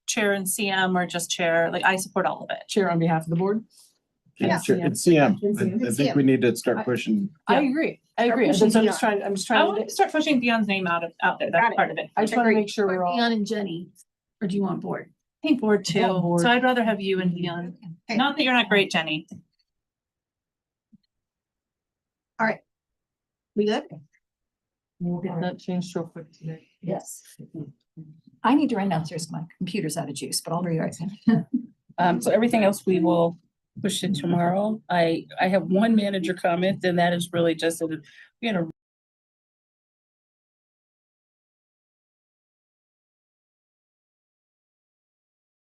chair and CM or just chair, like I support all of it. chair on behalf of the board. Yeah. It's it's CM. It's I- I CM. think we need to start pushing. I Yeah. agree, I Start agree. That's pushing what I'm beyond. just trying, I'm just I trying want to to, start pushing Dion's name out of, out there. Got That's it. part of it. I I just wanna make sure we're all, Dion and Jenny, or do you want board? think board too. Yeah, board. So I'd rather have you and Dion. Okay. Not that you're not great, Jenny. We good? we'll get that changed real quick today. Yes. I need to run downstairs, my computer's out of juice, but I'll be right back. Um, so everything else we will push to tomorrow. I, I have one manager comment, and that is really just, that we had a